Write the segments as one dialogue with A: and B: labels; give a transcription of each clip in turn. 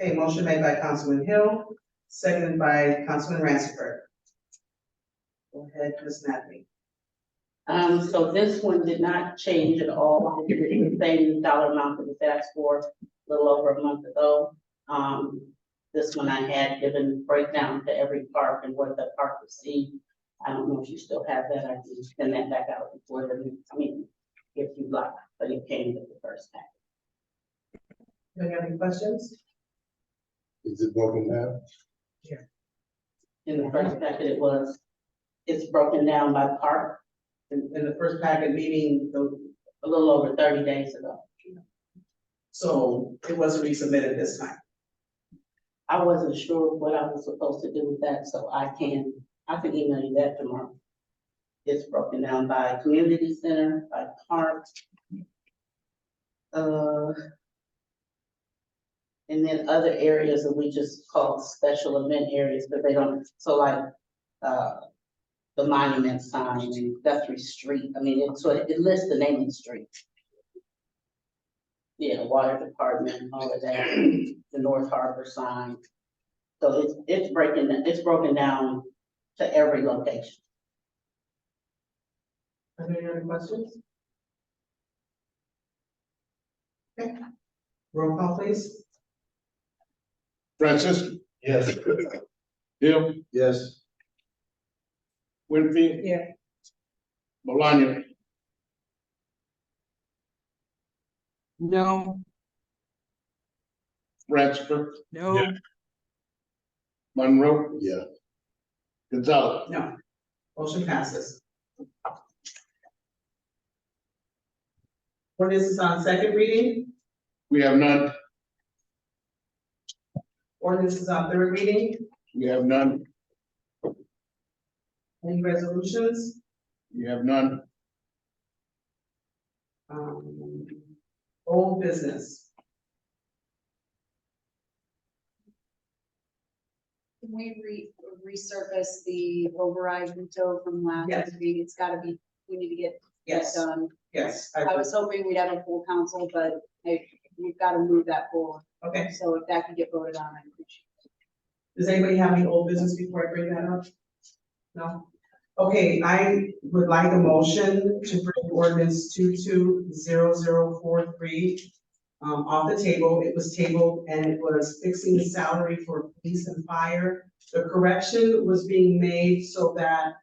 A: Okay, motion made by Councilman Hill, seconded by Councilman Ransford. Go ahead, Ms. Natalie.
B: Um, so this one did not change at all, It's the same dollar amount that was asked for a little over a month ago. Um, this one I had given breakdown to every park and what the park received. I don't know if you still have that, I can send that back out before the next meeting, if you like, but it came with the first pack.
A: Do you have any questions?
C: Is it broken down?
B: In the first packet, it was, it's broken down by park,
A: In, in the first packet meeting, the-
B: a little over thirty days ago.
A: so it wasn't resubmitted this time.
B: I wasn't sure what I was supposed to do with that, so I can, I can email you that tomorrow. It's broken down by community center, by park. Uh. And then other areas that we just call special event areas, but they don't, so like, uh. The monument sign and Guthrie Street, I mean, it, so it lists the name of the street. Yeah, water department, all of that, the North Harbor sign. So it's, it's breaking, it's broken down to every location.
A: Are there any other questions? Okay, roll call please.
C: Francis? Yes. Hill? Yes. Winfield?
A: Yeah.
C: Maloney?
D: No,
C: Ratchford?
D: no,
C: Monroe? Yeah. Gonzalez?
A: No. Motion passes. Ordinance is on second reading,
C: We have none.
A: ordinance is on third reading,
C: We have none.
A: any resolutions?
C: We have none.
A: Um, old business.
E: Can we re- resurface the override veto from last
A: Yes.
E: meeting? It's gotta be, we need to get that
A: Yes,
E: done.
A: yes.
E: I was hoping we'd have a full council, but I, we've gotta move that forward.
A: Okay,
E: So if that could get voted on, I appreciate
A: does anybody have any old business before I bring that up? No? Okay, I would like a motion to bring ordinance two two zero zero four three um, off the table. It was tabled and it was fixing the salary for police and fire. The correction was being made so that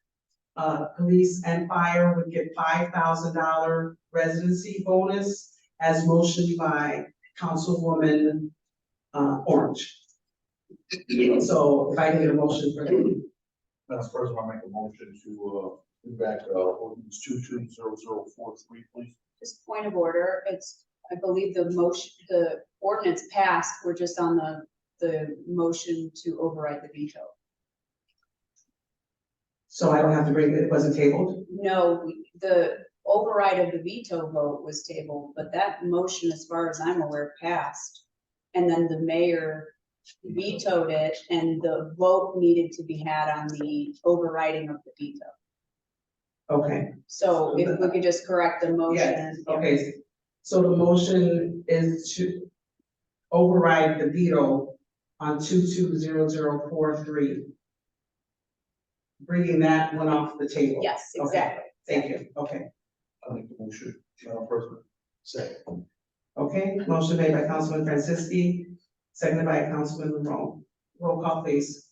A: uh, police and fire would get five thousand dollar residency bonus as motioned by Councilwoman uh, Orange. So if I can get a motion for that,
F: Madam President, I make a motion to, uh, bring back, uh, ordinance two two zero zero four three, please.
E: it. Just point of order, it's, I believe the motion, the ordinance passed, we're just on the, the motion to override the veto.
A: so I don't have to bring it, it wasn't tabled.
E: No, we- the override of the veto vote was tabled, but that motion, as far as I'm aware, passed. And then the mayor vetoed it and the vote needed to be had on the overriding of the veto.
A: Okay,
E: So if we could just correct the motion.
A: okay, so the motion is to override the veto on two two zero zero four three. Bringing that one off the table.
E: Yes,
A: Okay.
E: exactly.
A: Thank you, okay.
F: I make the motion, Madam President. Second.
A: Okay, motion made by Councilman Franciski, seconded by Councilman Monroe. Roll call please.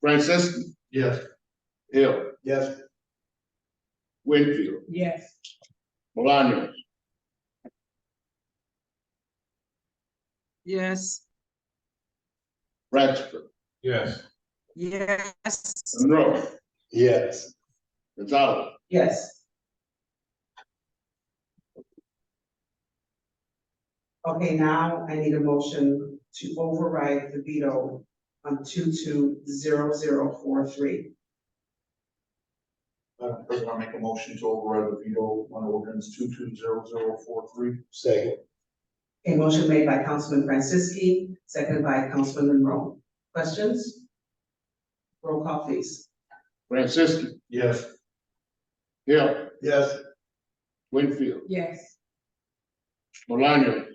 C: Francis?
F: Yes.
C: Hill?
F: Yes.
C: Winfield?
A: Yes.
C: Maloney?
D: yes,
C: Ratchford?
F: Yes.
D: yes,
C: Monroe?
F: Yes.
C: Gonzalez?
A: Yes. Okay, now I need a motion to override the veto on two two zero zero four three.
F: Madam President, I make a motion to override the veto on ordinance two two zero zero four three.
C: Second.
A: A motion made by Councilman Franciski, seconded by Councilman Monroe. Questions? Roll call please.
C: Francis?
F: Yes.
C: Hill?
F: Yes.
C: Winfield?
A: Yes.
C: Maloney?